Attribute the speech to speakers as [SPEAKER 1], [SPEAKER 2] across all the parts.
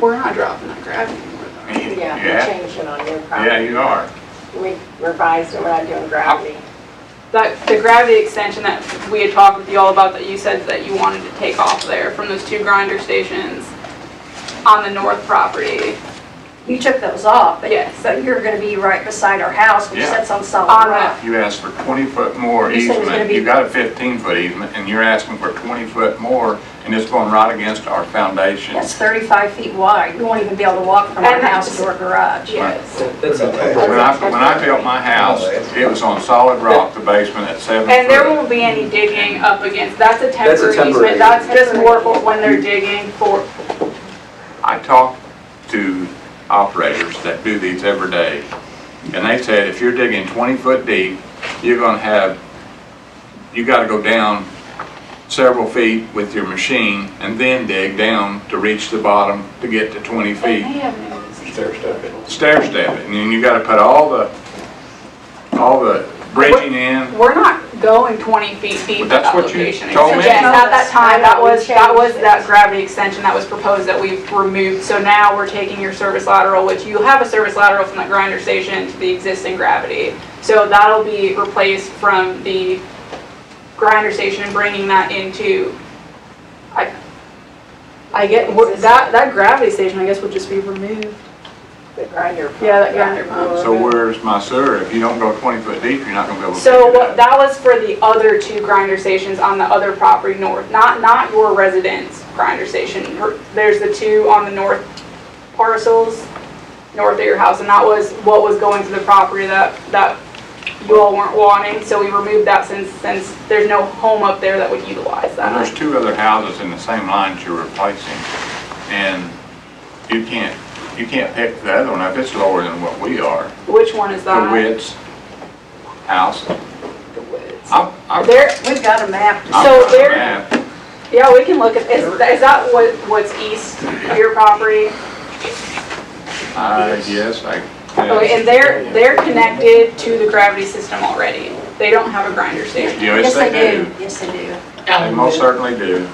[SPEAKER 1] We're not dropping that gravel anymore though. right?
[SPEAKER 2] Yeah,
[SPEAKER 3] Yeah.
[SPEAKER 2] we're changing on your
[SPEAKER 3] Yeah,
[SPEAKER 2] property.
[SPEAKER 3] you are.
[SPEAKER 2] We revised it, we're not doing gravity.
[SPEAKER 1] That, the gravity extension that we had talked with you all about that you said that you wanted to take off there from those two grinder stations on the north property.
[SPEAKER 4] You took those off, but,
[SPEAKER 1] Yes.
[SPEAKER 4] but you're gonna be right beside our house, which
[SPEAKER 3] Yeah.
[SPEAKER 4] sits on
[SPEAKER 1] On
[SPEAKER 4] solid
[SPEAKER 1] the-
[SPEAKER 4] rock.
[SPEAKER 3] You asked for 20-foot more
[SPEAKER 4] You said it was gonna
[SPEAKER 3] easement.
[SPEAKER 4] be-
[SPEAKER 3] You got a 15-foot easement, and you're asking for 20-foot more, and it's going right against our foundation.
[SPEAKER 4] That's thirty-five feet wide, you won't even be able to walk from our
[SPEAKER 1] And
[SPEAKER 4] house
[SPEAKER 1] that's-
[SPEAKER 4] to our garage.
[SPEAKER 1] Yes.
[SPEAKER 5] That's a-
[SPEAKER 3] When I, when I built my house, it was on solid rock, the basement at seven
[SPEAKER 1] And there
[SPEAKER 3] foot.
[SPEAKER 1] won't be any digging up against, that's a
[SPEAKER 5] That's
[SPEAKER 1] temporary
[SPEAKER 5] a
[SPEAKER 1] easement,
[SPEAKER 5] temporary.
[SPEAKER 1] that's just more for when they're digging for,
[SPEAKER 3] I talked to operators that do these every day, and they said, if you're digging 20-foot deep, you're gonna have, you gotta go down several feet with your machine and then dig down to reach the bottom to get to 20
[SPEAKER 1] they
[SPEAKER 3] feet.
[SPEAKER 1] have no
[SPEAKER 3] stair step it, and then you gotta put all the, all the bridging in.
[SPEAKER 1] We're not going 20 feet deep
[SPEAKER 3] But
[SPEAKER 1] with
[SPEAKER 3] that's
[SPEAKER 1] that
[SPEAKER 3] what you
[SPEAKER 1] location.
[SPEAKER 3] told me.
[SPEAKER 1] Yes, at that time, that was, that was
[SPEAKER 2] Changed it.
[SPEAKER 1] that gravity extension that was proposed that we've removed. So now we're taking your service lateral, which you have a service lateral from the grinder station to the existing gravity. So that'll be replaced from the grinder station and bringing that into, I, I get, we're- that, that gravity station, I guess, would just be removed.
[SPEAKER 2] The grinder pump.
[SPEAKER 1] Yeah, that grinder pump.
[SPEAKER 3] So where's my sewer? If you don't go twenty foot deep, you're not gonna be able to.
[SPEAKER 1] So
[SPEAKER 3] dig it
[SPEAKER 1] what,
[SPEAKER 3] up.
[SPEAKER 1] that was for the other two grinder stations on the other property north, not, not your residence grinder station. Her- There's the two on the north parcels, north of your house, and that was what was going to the property that, that you all weren't wanting, so we removed that since, since there's no home up there that would utilize
[SPEAKER 3] And
[SPEAKER 1] that.
[SPEAKER 3] there's two other houses in the same lines you're replacing, and you can't, you can't pick the other one up. It's lower than what we are.
[SPEAKER 1] Which one is
[SPEAKER 3] The
[SPEAKER 1] that?
[SPEAKER 3] Witt's house.
[SPEAKER 1] The Wits.
[SPEAKER 3] I'm, I'm.
[SPEAKER 1] There,
[SPEAKER 4] We've got a map
[SPEAKER 3] I'm
[SPEAKER 1] so
[SPEAKER 3] not
[SPEAKER 1] there-
[SPEAKER 3] mad.
[SPEAKER 1] yeah, we can look at, is, is that what, what's east of your property?
[SPEAKER 3] I guess Uh, I.
[SPEAKER 1] Okay, Oh, and they're, they're connected to the gravity system already. They don't have a grinder station.
[SPEAKER 3] Yes, they do.
[SPEAKER 4] Yes, they do.
[SPEAKER 3] They most certainly do.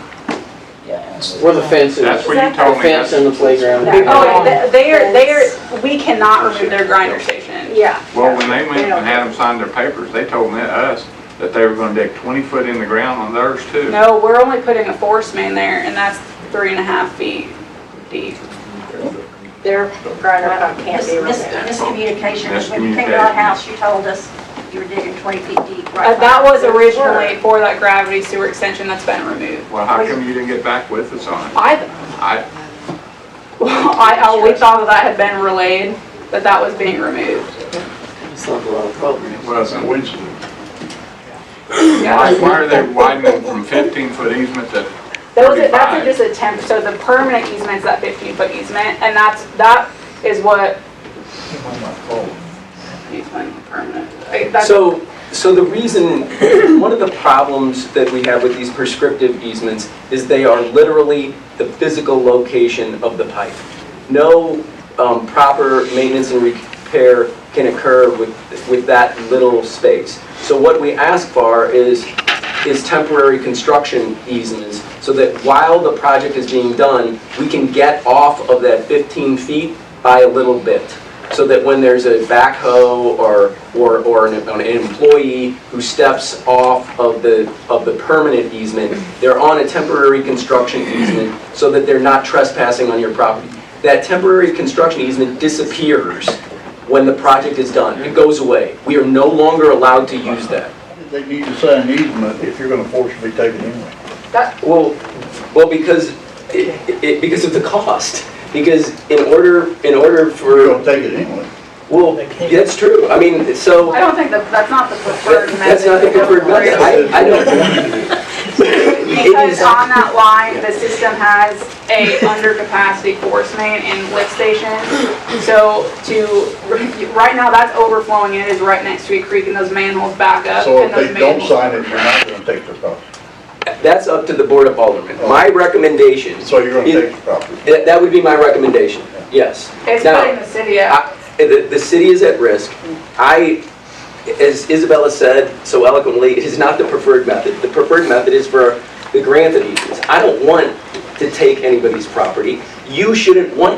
[SPEAKER 6] Where the fence is,
[SPEAKER 3] That's
[SPEAKER 6] the
[SPEAKER 3] what you told me.
[SPEAKER 6] fence and the playground.
[SPEAKER 2] Yeah.
[SPEAKER 1] Oh, they- they are, they are, we cannot remove their grinder station.
[SPEAKER 2] Yeah.
[SPEAKER 3] Well, when they went and had them sign their papers, they told me, us, that they were gonna dig twenty foot in the ground on theirs too.
[SPEAKER 1] No, we're only putting a force main there, and that's three and a half feet deep.
[SPEAKER 2] Their grinder pump can't
[SPEAKER 4] Mis-
[SPEAKER 2] be
[SPEAKER 4] mis-
[SPEAKER 2] removed.
[SPEAKER 4] Miscommunication, when you came to our
[SPEAKER 3] Miscommunication.
[SPEAKER 4] house, you told us you were digging twenty feet deep right
[SPEAKER 1] Uh, That
[SPEAKER 4] by-
[SPEAKER 1] was originally for that gravity sewer extension that's been removed.
[SPEAKER 3] Well, how come you didn't get back with us on it?
[SPEAKER 1] I,
[SPEAKER 3] I,
[SPEAKER 1] I, I- we thought that had been relayed, that that was being removed.
[SPEAKER 6] It's not a lot of problem.
[SPEAKER 3] it wasn't.
[SPEAKER 1] Yeah.
[SPEAKER 3] Why, why are they widening from fifteen foot easement to
[SPEAKER 1] Those are, that's
[SPEAKER 3] thirty-five?
[SPEAKER 1] a- just a temp, so the permanent easement's that fifteen foot easement, and that's, that is what. Easement, permanent. Like, that's-
[SPEAKER 5] So, so the reason, one of the problems that we have with these prescriptive easements is they are literally the physical location of the pipe. No um, proper maintenance and repair can occur with, with that little space. So what we ask for is, is temporary construction easements, so that while the project is being done, we can get off of that 15 feet by a little bit so that when there's a backhoe or, or, or an an employee who steps off of the, of the permanent easement, they're on a temporary construction easement so that they're not trespassing on your property. That temporary construction easement disappears when the project is done. It goes away. We are no longer allowed to use that.
[SPEAKER 7] They need to sign an easement if you're gonna forcibly take it anyway.
[SPEAKER 5] Well, well, because, it, it, because of the cost. Because in order, in order
[SPEAKER 7] You're
[SPEAKER 5] for,
[SPEAKER 7] gonna take it anyway.
[SPEAKER 5] well, that's true. I mean, so.
[SPEAKER 1] I don't think that, that's not the preferred method.
[SPEAKER 5] That's not the preferred method. I, I don't, It
[SPEAKER 1] Because
[SPEAKER 5] is-
[SPEAKER 1] on that line, the system has a undercapacity force main and lift station. So to, right now, that's overflowing, and it is right next to a creek, and those manholes back up.
[SPEAKER 7] So
[SPEAKER 1] and
[SPEAKER 7] if
[SPEAKER 1] those
[SPEAKER 7] they don't
[SPEAKER 1] manholes-
[SPEAKER 7] sign it, you're not gonna take their property.
[SPEAKER 5] that's up to the Board of Aldermen. My recommendation,
[SPEAKER 7] So you're gonna take the property.
[SPEAKER 5] that, that would be my recommendation, yes.
[SPEAKER 1] It's
[SPEAKER 5] Now,
[SPEAKER 1] putting the city out.
[SPEAKER 5] I- The, the city is at risk. I, as Isabella said so eloquently, it is not the preferred method. The preferred method is for the grant of easements. I don't want to take anybody's property. You shouldn't want